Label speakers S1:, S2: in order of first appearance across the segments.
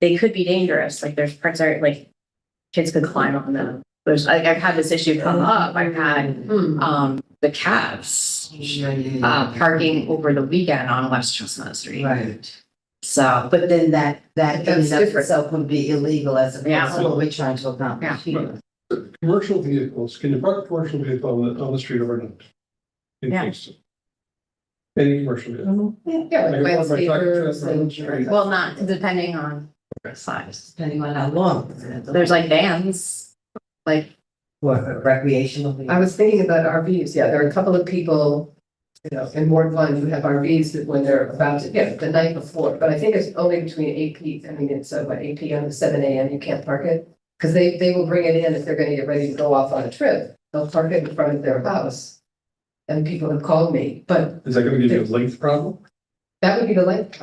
S1: they could be dangerous, like there's parts are like, kids could climb on them. There's, like, I've had this issue come up, I've had, um, the cabs,
S2: mm,
S3: Mm.
S1: uh, parking over the weekend on West Chestnut Street.
S2: Right.
S1: So,
S2: But then that, that in
S1: That's
S2: and of
S1: different.
S2: itself would be illegal as opposed
S1: Yeah.
S2: to what we're trying to accomplish
S1: Yeah.
S2: here.
S3: Commercial vehicles, can you park a commercial vehicle on the, on the street overnight? In
S1: Yeah.
S3: Kingston? Any commercial vehicle.
S2: Yeah.
S3: Like,
S2: with
S3: if I park a truck
S2: landscapers
S3: on the
S2: and-
S3: street,
S1: well, not depending on size.
S2: Depending on how long.
S1: There's like vans, like
S2: What, recreational.
S4: I was thinking about RVs, yeah, there are a couple of people, you know, in Ward One who have RVs that when they're about to, yeah, the night before, but I think it's only between eight P, I mean, it's uh, what, eight P M to seven A M, you can't park it. Cause they, they will bring it in if they're gonna get ready to go off on a trip, they'll park it in front of their house. And people have called me, but
S3: Is that gonna give you a length problem?
S4: that would be the length.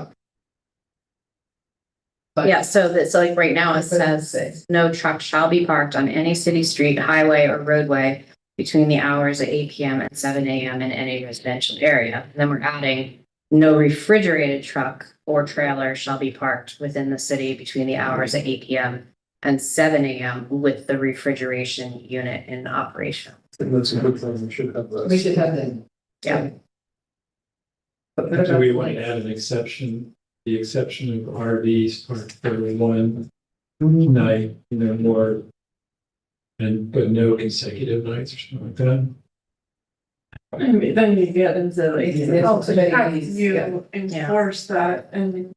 S4: But-
S1: Yeah, so that's like right now it says, no truck shall be parked on any city street, highway or roadway between the hours of eight PM and seven AM in any residential area. And Then we're adding, no refrigerated truck or trailer shall be parked within the city between the hours of eight PM and seven AM with the refrigeration unit in operation.
S3: And that's a good thing, we should have that.
S4: We should have them.
S1: Yeah.
S4: But what
S5: Do
S4: about
S5: we want
S4: like-
S5: to add an exception, the exception of RVs parked for one
S6: Mm-hmm.
S2: Mhm.
S5: night, you know, more and, but no consecutive nights or something like that?
S6: I mean, then you get into like, oh,
S4: Yeah.
S6: how to- how
S4: Yeah.
S6: you enforce that and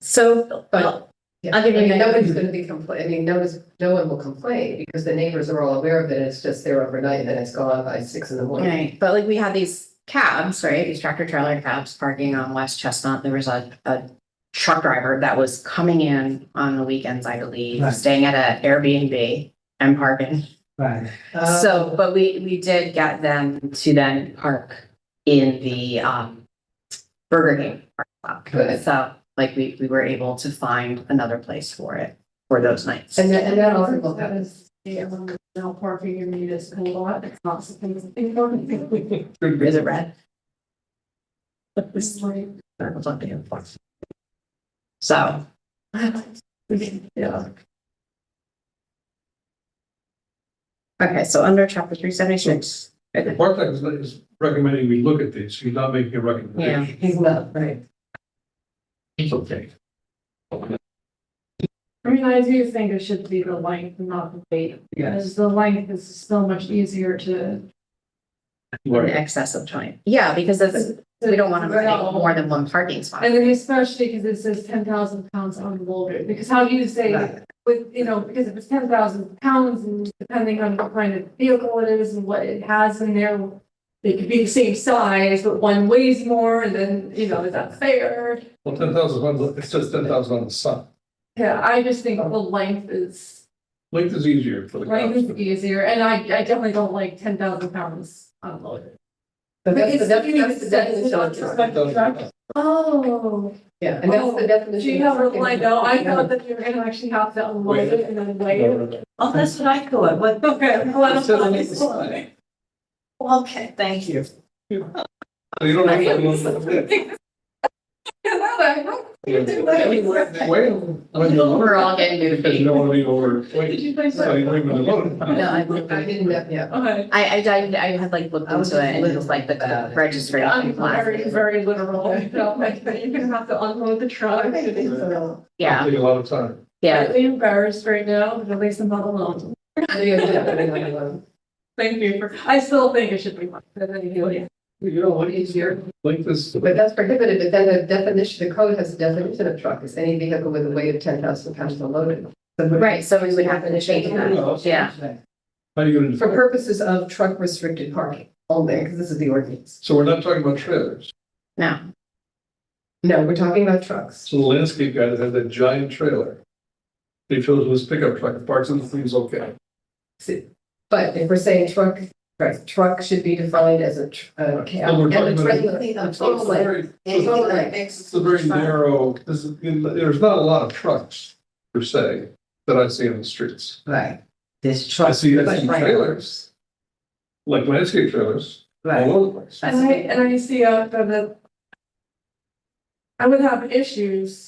S1: So, well,
S4: Yeah,
S1: I'll
S4: I
S1: give you
S4: mean,
S1: an
S4: nobody's gonna be complaining, I mean, no one's, no one will complain because the neighbors are all aware of it, it's just there overnight and it's gone by six in the morning.
S1: Right, but like we had these cabs, right, these tractor trailer cabs parking on West Chestnut, there was a, a truck driver that was coming in on the weekends, I believe,
S2: Right.
S1: staying at a Airbnb and parking.
S2: Right.
S4: Um, Oh.
S1: So, but we, we did get them to then park in the, um, Burger King. parking lot.
S4: Good.
S1: So, like, we, we were able to find another place for it, for those nights.
S4: And that, and that also will happen.
S6: yeah, when no parking in municipal lot, it's not something to think of.
S1: Is it red?
S6: It's like,
S1: So,
S6: Yeah.
S1: okay, so under chapter three seventy-six.
S3: The Park Act is- is recommending we look at these, he's not making a recommendation.
S4: He's not, right?
S3: okay.
S6: I mean, I do think it should be the length, not the weight, because the length is so much easier to.
S1: In excess of twenty. Yeah, because that's, we don't want to
S6: Right.
S1: make more than one parking spot.
S6: And then especially because it says ten thousand pounds unloaded, because how do you say
S2: Right.
S6: with, you know, because if it's ten thousand pounds and depending on what kind of vehicle it is and what it has in there. They could be the same size, but one weighs more and then, you know, is that fair?
S3: Well, ten thousand on, the- it says ten thousand on the sun.
S6: Yeah, I just think the length is,
S3: Length is easier for the
S6: length
S3: cops.
S6: is easier and I, I definitely don't like ten thousand pounds unloaded.
S4: But
S6: But
S4: that's,
S6: it's
S4: the- that's, that's the
S6: it's- it's
S4: definition
S6: not
S4: of
S6: just
S4: truck.
S6: like the truck. Oh,
S4: Yeah, and that's
S6: Oh,
S4: the definition.
S6: do you
S4: of
S6: have a
S4: truck.
S6: line? No, I thought that you were gonna actually have to unload it and then weigh it.
S2: Oh, that's what I thought, what,
S6: Okay, well, I
S3: It says on the
S6: don't know.
S3: side.
S2: okay, thank you.
S3: So You don't have to. Wait, when you load
S1: We're all getting
S3: it, Because
S1: moving.
S3: you don't want to be over,
S6: Did
S3: wait,
S6: you guys?
S3: so you leave it alone.
S1: No, I,
S4: I
S1: I,
S4: didn't, know- yeah.
S6: Okay.
S1: I, I I had like looked
S2: I was
S1: into it and it
S2: just
S1: was like the-
S2: about
S1: the
S2: it.
S1: registration
S6: I'm
S1: class.
S6: very, very literal. No, like, but You're gonna have to unload the truck.
S1: Yeah,
S3: Take a lot of time.
S1: yeah.
S6: Slightly embarrassed right now, but at least I'm not alone.
S4: What
S6: Thank you for, I still think it should be one, but anyway.
S3: You know, length
S4: is your,
S3: length is.
S4: but that's prohibited, but then the definition, the code has a definition of truck, is any vehicle with a weight of ten thousand pounds unloaded. So what-
S1: Right, so we would have to change that. Yeah.
S3: How do you gonna,
S4: For purposes of truck restricted parking only, because this is the ordinance.
S3: so we're not talking about trailers.
S1: No,
S4: No, we're talking about trucks.
S3: So the landscape guy that had that giant trailer. They filled it with his pickup truck, parts and things, okay.
S4: But if we're saying truck, right, truck should be defined as a, tr- a cab.
S3: So we're
S4: and a
S3: talking about-
S4: trailer.
S3: It's a very, it's a very narrow, this is, there's not a lot of trucks per se that I see on the streets.
S2: Right, this truck.
S3: I see, I see
S2: Right.
S3: trailers. Like landscape trailers, all
S2: Right,
S3: over the place.
S2: That's
S6: And I,
S2: okay.
S6: and I see, uh, that. that I would have issues